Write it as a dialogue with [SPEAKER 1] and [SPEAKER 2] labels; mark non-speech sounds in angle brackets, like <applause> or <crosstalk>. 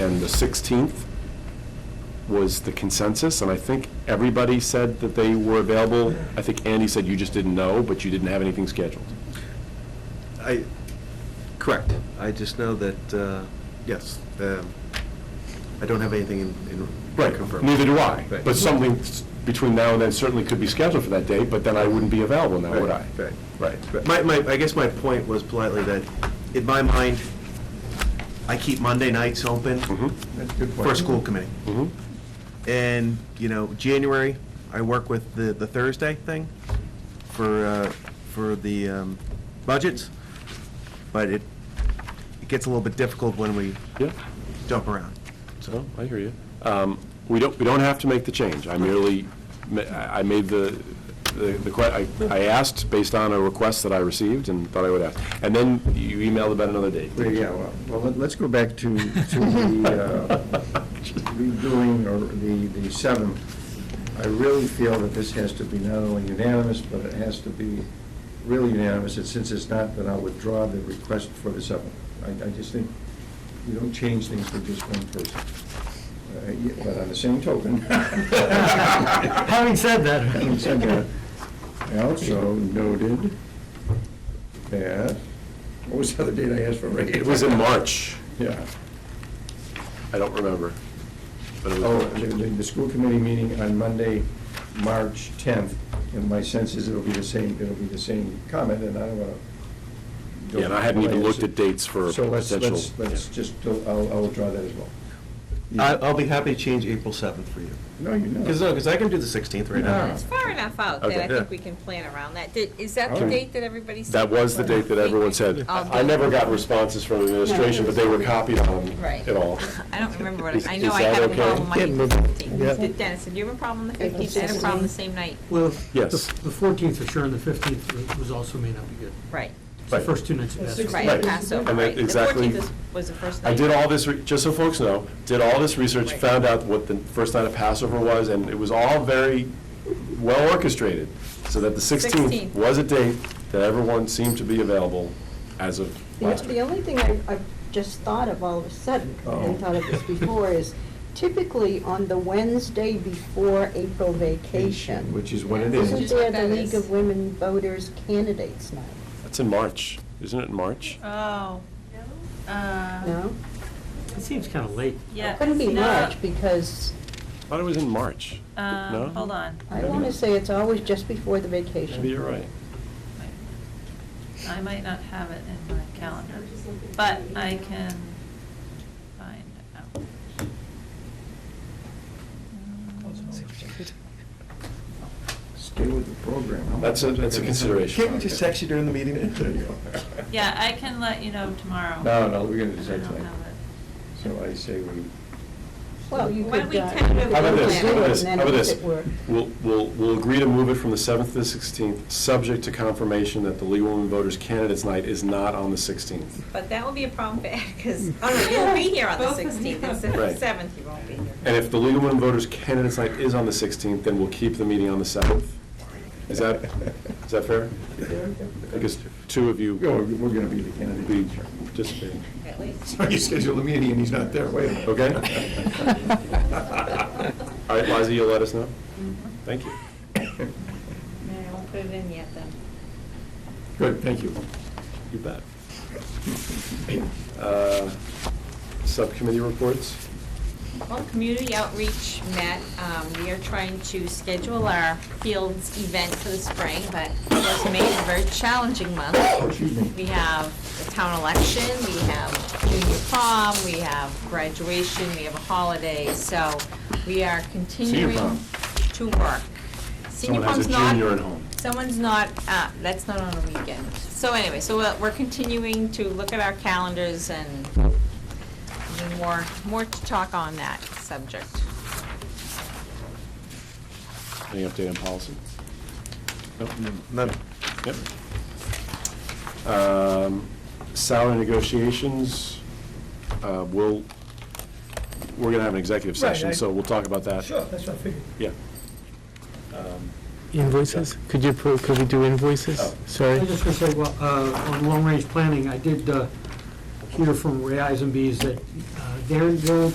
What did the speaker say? [SPEAKER 1] on the 16th was the consensus, and I think everybody said that they were available. I think Andy said you just didn't know, but you didn't have anything scheduled.
[SPEAKER 2] I, correct. I just know that, uh, yes, um, I don't have anything in- in. confirmed.
[SPEAKER 1] Neither do I.
[SPEAKER 2] Right.
[SPEAKER 1] But something s- between now and then certainly could be scheduled for that day, but then I wouldn't be available now, would I?
[SPEAKER 2] Right, right.
[SPEAKER 1] Right.
[SPEAKER 2] But My, my, I guess my point was politely that, in my mind, I keep Monday nights open for a school committee. Mm-hmm. And, you know, January, I work with the, the Thursday thing for, uh, for the um, budgets, but it, it gets a little bit difficult when we
[SPEAKER 1] Yeah,
[SPEAKER 2] jump around.
[SPEAKER 1] so, I hear you. Um, We don't, we don't have to make the change. I merely, ma- I I made the, the, the que- I I asked based on a request that I received and thought I would ask. And then you emailed about another date.
[SPEAKER 3] Well, Yeah, well, well, let- let's go back to, to the, uh,
[SPEAKER 1] <laughs>
[SPEAKER 3] redoing or the, the seventh. I really feel that this has to be not only unanimous, but it has to be really unanimous, and since it's not, then I'll withdraw the request for the seventh. I, I just think you don't change things for just one person. Uh, yeah, But on the same token.
[SPEAKER 4] <laughs> Having said that.
[SPEAKER 3] Having said that, I also noted that, what was the other date I asked for? Ray?
[SPEAKER 1] It was in March.
[SPEAKER 3] Yeah.
[SPEAKER 1] I don't remember. But it
[SPEAKER 3] Oh,
[SPEAKER 1] was
[SPEAKER 3] the,
[SPEAKER 1] March.
[SPEAKER 3] the the school committee meeting on Monday, March 10th, and my sense is it'll be the same, it'll be the same comment, and I don't want to.
[SPEAKER 1] Yeah, and I hadn't even looked at dates for
[SPEAKER 3] So let's,
[SPEAKER 1] potential-
[SPEAKER 3] let's, let's just, I'll, I'll draw that as well.
[SPEAKER 2] I- I'll be happy to change April 7th for you.
[SPEAKER 3] No, you're not.
[SPEAKER 2] Because, no, because I can do the 16th right now.
[SPEAKER 3] No.
[SPEAKER 5] It's far enough out that
[SPEAKER 1] Okay.
[SPEAKER 5] I think we can plan around that. Did- Is that the
[SPEAKER 3] Okay.
[SPEAKER 5] date that everybody said? Oh,
[SPEAKER 1] That was the date that everyone said. I I never got responses from the administration, but they were copied on
[SPEAKER 5] Right.
[SPEAKER 1] it all.
[SPEAKER 5] I don't remember what,
[SPEAKER 1] Is-
[SPEAKER 5] I
[SPEAKER 1] is
[SPEAKER 5] know I
[SPEAKER 1] that
[SPEAKER 5] had a
[SPEAKER 1] okay?
[SPEAKER 5] problem on
[SPEAKER 4] Can't
[SPEAKER 5] the
[SPEAKER 4] move it. Yeah.
[SPEAKER 5] 15th. Dennis, did you have a problem on the 15th? I had a problem the same night.
[SPEAKER 4] Well, the
[SPEAKER 1] Yes.
[SPEAKER 4] the 14th for sure, and the 15th was also may not be good.
[SPEAKER 5] Right,
[SPEAKER 4] It's the
[SPEAKER 1] Right.
[SPEAKER 4] first two nights of basketball.
[SPEAKER 5] right,
[SPEAKER 1] Right.
[SPEAKER 5] Passover,
[SPEAKER 1] And that
[SPEAKER 5] right. The
[SPEAKER 1] exactly-
[SPEAKER 5] 14th is- was the first night.
[SPEAKER 1] I did all this, re- just so folks know, did all this research,
[SPEAKER 5] Right.
[SPEAKER 1] found out what the first night of Passover was, and it was all very well orchestrated, so that the 16th
[SPEAKER 5] 16th.
[SPEAKER 1] was a date that everyone seemed to be available as of
[SPEAKER 6] The
[SPEAKER 1] last week. Oh.
[SPEAKER 6] the only thing I, I just thought of all of a sudden,
[SPEAKER 3] Uh-oh.
[SPEAKER 6] and thought of this before, is typically on the Wednesday before April vacation.
[SPEAKER 3] Which is what it
[SPEAKER 5] This
[SPEAKER 6] Isn't
[SPEAKER 3] is.
[SPEAKER 6] there the
[SPEAKER 5] That
[SPEAKER 6] League
[SPEAKER 5] is-
[SPEAKER 6] of Women Voters Candidates Night?
[SPEAKER 1] That's in March, isn't it in March?
[SPEAKER 5] Um,
[SPEAKER 7] Oh. Uh,
[SPEAKER 6] No?
[SPEAKER 4] It seems kind of late.
[SPEAKER 7] yeah.
[SPEAKER 6] Couldn't be
[SPEAKER 7] no,
[SPEAKER 6] March, because
[SPEAKER 1] I thought it was in March.
[SPEAKER 7] um,
[SPEAKER 1] No?
[SPEAKER 7] Hold on.
[SPEAKER 6] I want to say it's always just before the
[SPEAKER 1] Maybe
[SPEAKER 6] vacation.
[SPEAKER 1] you're right.
[SPEAKER 7] I might not have it in my calendar, but I can find out.
[SPEAKER 5] Oh.
[SPEAKER 3] Stay with the program. How
[SPEAKER 1] That's a-
[SPEAKER 3] much-
[SPEAKER 1] that's a consideration. Can't we just text
[SPEAKER 2] you during the meeting?
[SPEAKER 3] There you go.
[SPEAKER 7] Yeah, I can let you know tomorrow.
[SPEAKER 3] No, no, we're gonna decide
[SPEAKER 7] I don't
[SPEAKER 3] tonight.
[SPEAKER 7] have it.
[SPEAKER 3] So I say we,
[SPEAKER 6] Well, you
[SPEAKER 5] Why don't
[SPEAKER 6] could.
[SPEAKER 5] we
[SPEAKER 6] uh,
[SPEAKER 5] kind of
[SPEAKER 6] you
[SPEAKER 1] How about
[SPEAKER 6] could
[SPEAKER 1] this,
[SPEAKER 6] do
[SPEAKER 1] how about
[SPEAKER 6] it,
[SPEAKER 1] this,
[SPEAKER 6] and
[SPEAKER 1] how
[SPEAKER 6] then
[SPEAKER 1] about
[SPEAKER 6] if
[SPEAKER 1] this?
[SPEAKER 6] it were-
[SPEAKER 1] We'll, we'll, we'll agree to move it from the 7th to the 16th, subject to confirmation that the League of Women Voters Candidates Night is not on the 16th.
[SPEAKER 5] But that will be a problem for
[SPEAKER 7] <laughs>
[SPEAKER 5] because, oh, no, you'll be here on the
[SPEAKER 7] Both of you.
[SPEAKER 5] 16th, instead of
[SPEAKER 1] Right.
[SPEAKER 5] the 7th, you won't be here.
[SPEAKER 1] And if the League of Women Voters Candidates Night is on the 16th, then we'll keep the meeting on the 7th. Is that, is that fair? Because two of you
[SPEAKER 3] we're we're gonna be the
[SPEAKER 1] will be
[SPEAKER 3] candidate.
[SPEAKER 1] participating.
[SPEAKER 5] At least.
[SPEAKER 3] So you schedule the meeting and he's not there, wait a minute. <laughs>
[SPEAKER 1] Okay. All right, Liza, you'll let us know? Thank you.
[SPEAKER 5] No, I won't put it in yet, then.
[SPEAKER 3] Good, thank you.
[SPEAKER 1] You bet. Uh, Subcommittee reports?
[SPEAKER 5] Well, community outreach met, um, we are trying to schedule our fields event for the spring, but it was made a very challenging month.
[SPEAKER 3] Oh, Excuse me.
[SPEAKER 5] We have the town election, we have junior prom, we have graduation, we have a holiday, so we are continuing
[SPEAKER 1] prom.
[SPEAKER 5] to work. Senior
[SPEAKER 1] Someone has
[SPEAKER 5] prom's
[SPEAKER 1] a
[SPEAKER 5] not.
[SPEAKER 1] junior at home.
[SPEAKER 5] Someone's not, uh, that's not on a weekend. So anyway, so we're- we're continuing to look at our calendars and I mean, more, more to talk on that subject.
[SPEAKER 1] Any update on policy?
[SPEAKER 2] None.
[SPEAKER 1] Yep. Um, Salary negotiations, uh, we'll, we're going to have an executive
[SPEAKER 3] Right, I-
[SPEAKER 1] session, so we'll talk about that.
[SPEAKER 3] that's what I figured.
[SPEAKER 1] Yeah.
[SPEAKER 8] Invoices? Could you, pro- could we do
[SPEAKER 1] Oh.
[SPEAKER 8] invoices? Sorry.
[SPEAKER 4] I just want to say, well, uh, on long-range planning, I did uh, hear from Ray Eisenbees that uh, they're, they're